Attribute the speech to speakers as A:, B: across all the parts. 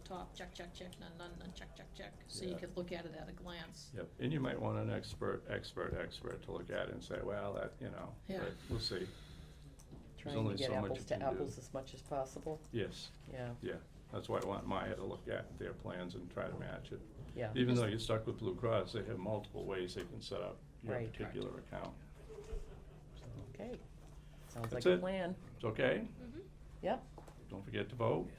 A: top, check, check, check, none, none, none, check, check, check. So you
B: Yeah.
A: could look at it at a glance.
B: Yep, and you might want an expert, expert, expert to look at it and say, well, that, you know,
A: Yeah.
B: but we'll see.
C: Trying
B: only
C: to get
B: so much
C: apples
B: you
C: to
B: can do.
C: apples as much as possible,
B: Yes,
C: yeah,
B: yeah, that's why I want Maya to look at their plans and try to match it.
C: yeah.
B: Even though you're stuck with Blue Cross, they have multiple ways they can set up your
C: Right.
B: particular account. So,
C: Okay, sounds
B: That's
C: like a
B: it.
C: plan.
B: It's okay,
A: Mm-hmm.
C: Yep,
B: don't forget to vote.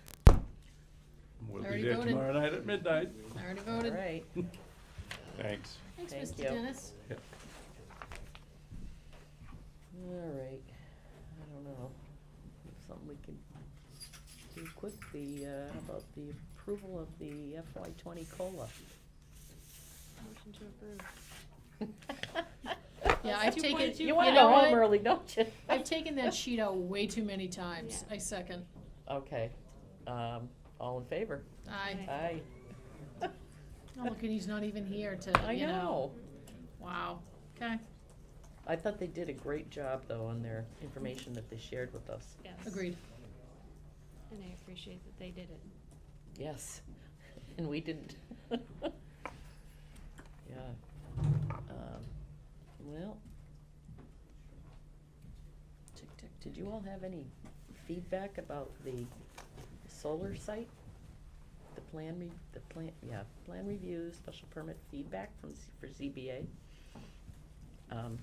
B: We'll be
A: Already
B: there
A: voted.
B: tomorrow night at midnight.
A: I already
C: all
A: voted.
C: right.
B: Thanks.
A: Thanks,
C: Thank
A: Mr.
C: you.
A: Dennis.
B: Yeah.
C: All right, I don't know, if something we can do quick, the, uh, about the approval of the FY twenty COLA.
D: Motion to approve.
A: Yeah,
D: That's
A: I've taken,
D: 2.2.
A: you
C: You wanna
A: know
C: go home
A: what?
C: early, don't you?
A: I've taken that sheet out way too many times.
D: Yeah.
A: I second.
C: Okay, um, all in favor?
A: I,
D: Aye.
C: Aye.
A: oh, look, and he's not even here to,
C: I
A: you know.
C: know,
A: Wow. Okay,
C: I thought they did a great job, though, on their information that they shared with us,
D: Yes.
A: agreed.
D: And I appreciate that they did it.
C: yes, and we didn't. Yeah, um, well,
A: Tick, tick, tick.
C: Did you all have any feedback about the solar site? The plan re, the plan, yeah, plan review, special permit feedback from, Z- for ZBA? Um,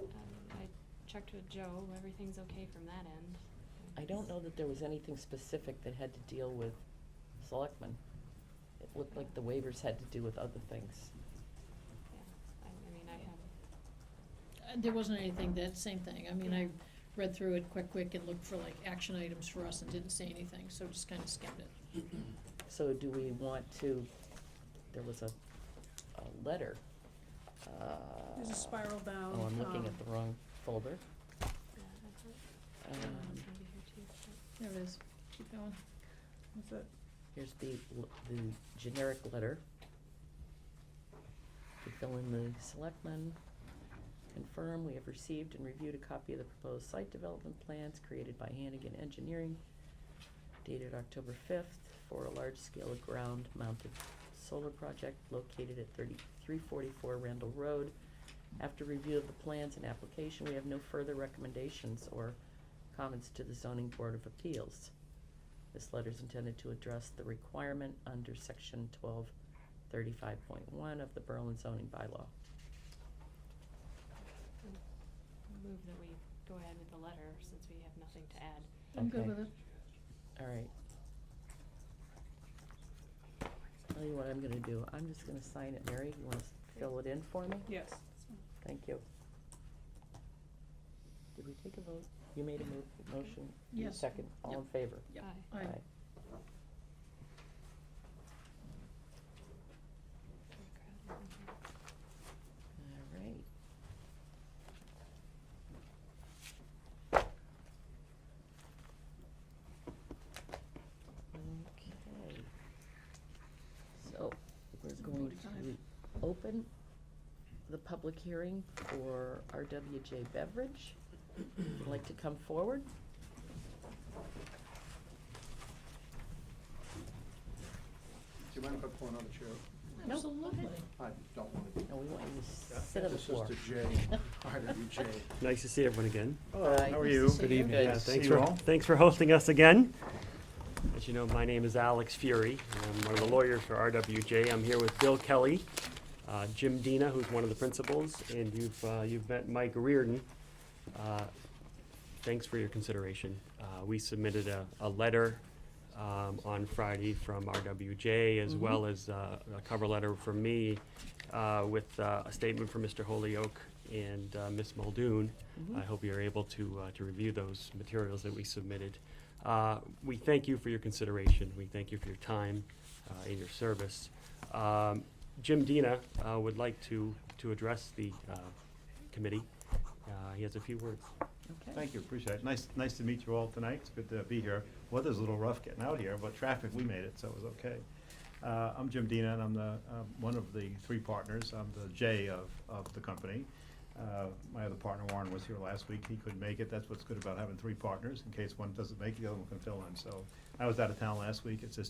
D: Um, I checked with Joe, everything's okay from that end.
C: I don't know that there was anything specific that had to deal with selectmen. It looked like the waivers had to do with other things.
D: Yeah, I, I mean, I have,
A: Uh, There wasn't anything, that same thing. I mean, I read through it quick, quick and looked for like action items for us and didn't see anything, so just kinda skimmed it.
C: So do we want to, there was a, a letter, uh.
E: There's a spiral bound.
C: Oh, I'm looking
E: um,
C: at the wrong folder.
D: yeah, that's it.
C: Um,
D: Everyone's gonna be here too, but-
A: There it is. Keep going.
E: That's it.
C: Here's the, l- the generic letter. To fill in the selectmen, confirm we have received and reviewed a copy of the proposed site development plans created by Hannigan Engineering dated October fifth for a large-scale ground-mounted solar project located at thirty-three forty-four Randall Road. After review of the plans and application, we have no further recommendations or comments to the zoning board of appeals. This letter is intended to address the requirement under section twelve thirty-five point one of the Berlin zoning bylaw.
D: Move that we go ahead with the letter since we have nothing to add.
A: I'm good
C: Okay.
A: with it.
C: All right. Tell you what I'm gonna do, I'm just gonna sign it, Mary, you wanna s- fill it in for me?
E: Yes.
C: Thank you. Did we take a vote? You made a mo- motion, you
A: Yes.
C: second, all in
A: Yep.
C: favor?
A: Yep.
D: Aye.
A: Aye.
D: Good crowd in
C: All
D: here.
C: right. Okay. So, we're going
A: Forty-five.
C: to open the public hearing for RWJ Beverage. Would like to come forward?
F: Do you mind if I pull another chair?
C: No.
A: Absolutely.
F: I don't want to.
C: No, we want you to sit on the floor.
F: This is to Jay, RWJ.
G: Nice to see everyone again.
C: Hi.
G: How
A: Nice
G: are
A: to
G: you?
A: see Good you. evening.
G: Yeah,
C: Good.
G: Uh, Thanks
F: See you
G: for,
F: all.
G: thanks for hosting us again. As you know, my name is Alex Fury. I'm one of the lawyers for RWJ. I'm here with Bill Kelly, uh, Jim Dina, who's one of the principals, and you've, uh, you've met Mike Reardon. Uh, Thanks for your consideration. Uh, We submitted a, a letter um, on Friday from RWJ, as well as uh, a cover letter from me uh, with uh, a statement from Mr. Holyoke and uh, Ms. Muldoon. I hope you're able to, uh, to review those materials that we submitted. Uh, We thank you for your consideration. We thank you for your time uh, and your service. Um, Jim Dina uh, would like to, to address the uh, committee. Uh, He has a few words.
C: Okay.
H: Thank you, appreciate it. Nice, nice to meet you all tonight. It's good to be here. Weather's a little rough getting out here, but traffic, we made it, so it was okay. Uh, I'm Jim Dina, and I'm the, um, one of the three partners. I'm the J of, of the company. Uh, My other partner, Warren, was here last week. He couldn't make it. That's what's good about having three partners. In case one doesn't make it, the other one can fill in. So I was out of town last week. It's just